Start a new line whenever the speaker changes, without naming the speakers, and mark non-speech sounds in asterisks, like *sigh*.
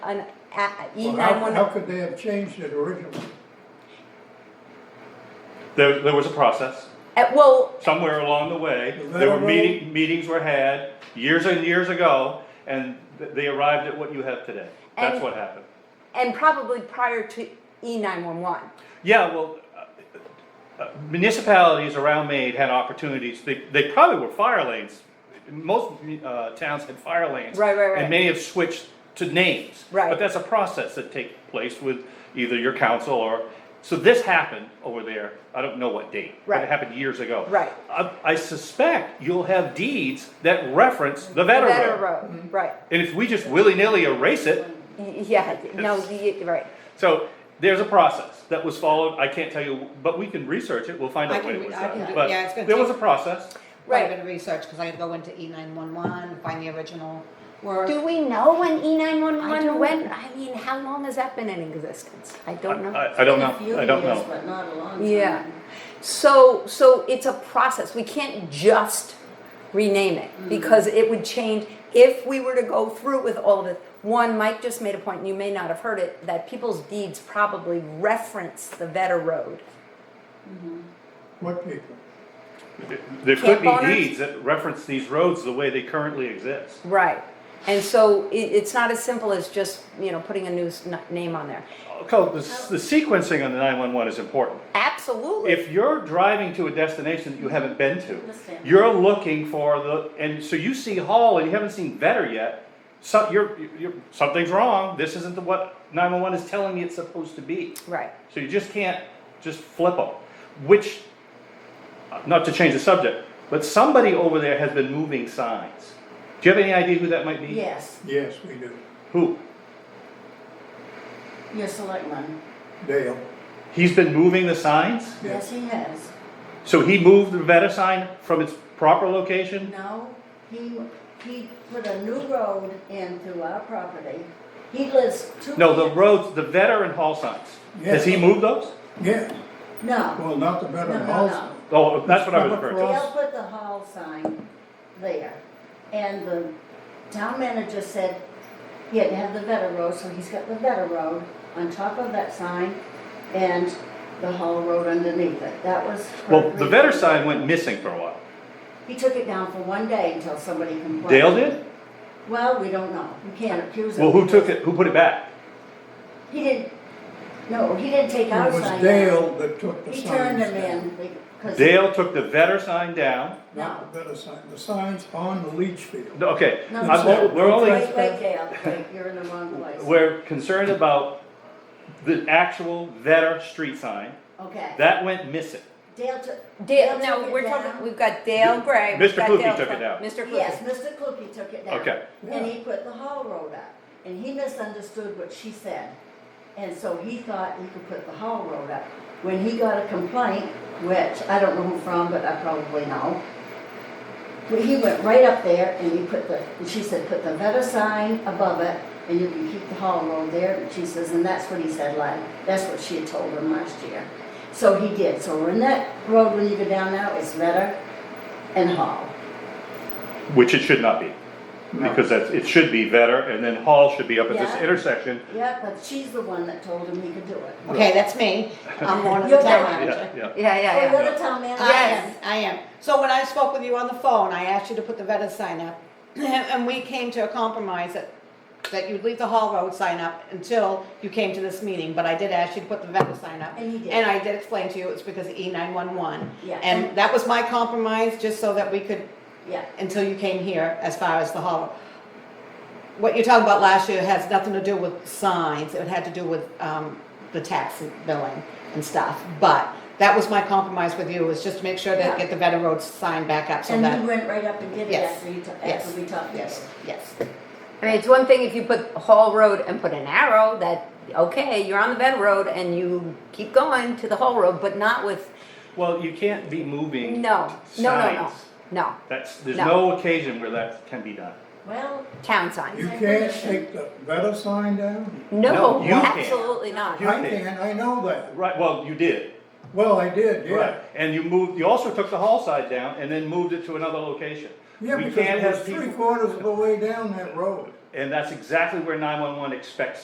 an E
Well, How, how
nine
could they have changed it originally?
There, there was a process.
one, Uh, well,
Somewhere along the way,
The
there were
railroad-
meeting, meetings were had years and years ago, and th- they arrived at what you have today. That's
And-
what happened.
and probably prior to E nine one one.
Yeah, well, uh, uh, municipalities around Maine had opportunities, they, they probably were fire lanes. Most uh, towns had fire lanes.
Right, right, right.
And many have switched to names.
Right.
But that's a process that takes place with either your council or, so this happened over there, I don't know what date. But
Right.
it happened years ago.
Right.
I, I suspect you'll have deeds that reference the veteran road.
Road, right, *laughs*
And if we just willy-nilly erase it,
Y- yeah, no, the, right.
so there's a process that was followed. I can't tell you, but we can research it. We'll find
I
out
can
what
re-
it was
I can
done.
do-
But
yeah, it's gonna
there was a
take-
process.
Quite
Right.
a bit of research, because I had to go into E nine one one, find the original work.
Do we know when E nine one
I
one
don't-
went? I mean, how long has that been in existence? I don't know.
I, I don't
A few
know. I don't
years,
know.
But not a long time.
Yeah. So, so it's a process. We can't just rename it because it would change. If we were to go through with all of it, one, Mike just made a point, and you may not have heard it, that people's deeds probably reference the Vetter Road.
What people?
There could be
owners?
deeds that reference these roads the way they currently exist.
Right. And so it, it's not as simple as just, you know, putting a new s- n- name on there.
Okay, the, s- the sequencing on the 911 is important.
Absolutely.
If you're driving to a destination that you haven't been to,
Understand.
you're looking for the, and so you see Hall and you haven't seen Vetter yet. So you're, you're, something's wrong. This isn't the, what 911 is telling me it's supposed to be.
right.
So you just can't just flip them, which, uh, not to change the subject, but somebody over there has been moving signs. Do you have any idea who that might be?
Yes,
Yes, we do.
Who?
your selectman,
Dale,
He's been moving the signs?
yes, he has.
So he moved the Veta sign from its proper location?
No, he, he put a new road in through our property. He lives two.
No, the roads, the Veta and Hall signs. Has he
Yes.
moved those?
yeah,
No,
well, not the better
No, no,
house.
Oh, that's what I was referring to.
Dale put the hall sign there, and the town manager said he had to have the Vetter Road, so he's got the Vetter Road on top of that sign, and the hall road underneath it, that was.
Well, the Veta sign went missing for a while.
He took it down for one day until somebody complained.
Dale did?
Well, we don't know, we can't accuse him.
Well, who took it, who put it back?
He didn't, no, he didn't take our
It
sign.
was Dale that took the signs.
He turned them
down,
in, because.
Dale took the Veta sign down.
Not the better sign, the signs on the leach
No,
field.
Okay,
No,
I'm
no.
o- we're only,
Wait, wait, Dale, wait, you're in the wrong place.
We're concerned about the actual Vetter street sign,
Okay.
that went missing.
Dale took.
Dale,
took
no,
it
we're
down.
talking, we've got Dale Gray. we've
Mr.
got
Kluge
Dale
took it
Gray,
down.
Mr. Kluge.
Yes, Mr. Cookie took it down.
Okay.
And he put the hall road up, and he misunderstood what she said. And so he thought he could put the hall road up. When he got a complaint, which I don't know who from, but I probably know. Well, He went right up there and he put the, and she said, put the letter sign above it and you can keep the hall road there. And she says, and that's what he said, like, that's what she had told him last year. So he did. So when that road, when you go down now, it's letter and hall.
Which it should not be,
No.
because that's, it should be Vetter, and then Hall should be up at this
Yeah.
intersection.
Yeah, but she's the one that told him he could do it.
Okay, that's me. I'm one of the
You're
town
that-
manager.
Yeah, yeah.
Yeah, yeah, yeah.
Oh, you're the town manager.
I am, I am. So when I spoke with you on the phone, I asked you to put the Veta sign up. *clears throat* And we came to a compromise that, that you'd leave the Hall Road sign up until you came to this meeting. But I did ask you to put the Veta sign up.
And you did.
And I did explain to you it's because of E nine one one.
Yeah.
And that was my compromise, just so that we could,
Yeah,
until you came here, as far as the Hall. Road. What you're talking about last year has nothing to do with signs. It had to do with, um, the tax billing and stuff. But that was my compromise with you, was just to make sure that,
Yeah.
get the Vetter Road sign back up so
and he
that.
went right up and did it
Yes,
after you, ta-
yes,
after we talked.
Yes, yes.
I mean, it's one thing if you put Hall Road and put an arrow that, okay, you're on the Vetter Road and you keep going to the Hall Road, but not with,
Well, you can't be moving
no, no, no, no,
signs.
no,
That's, there's
No.
no occasion where that can be done.
Well,
town
You
signs.
can't take the better sign down?
No,
No, you can't.
absolutely not.
You
I
did.
can, I know that.
Right, well, you did,
Well, I did,
right,
yeah.
and you moved, you also took the Hall side down and then moved it to another location.
Yeah,
We
because
can't
it was
have
three
people-
quarters of the way down that road.
And that's exactly where nine-one-one expects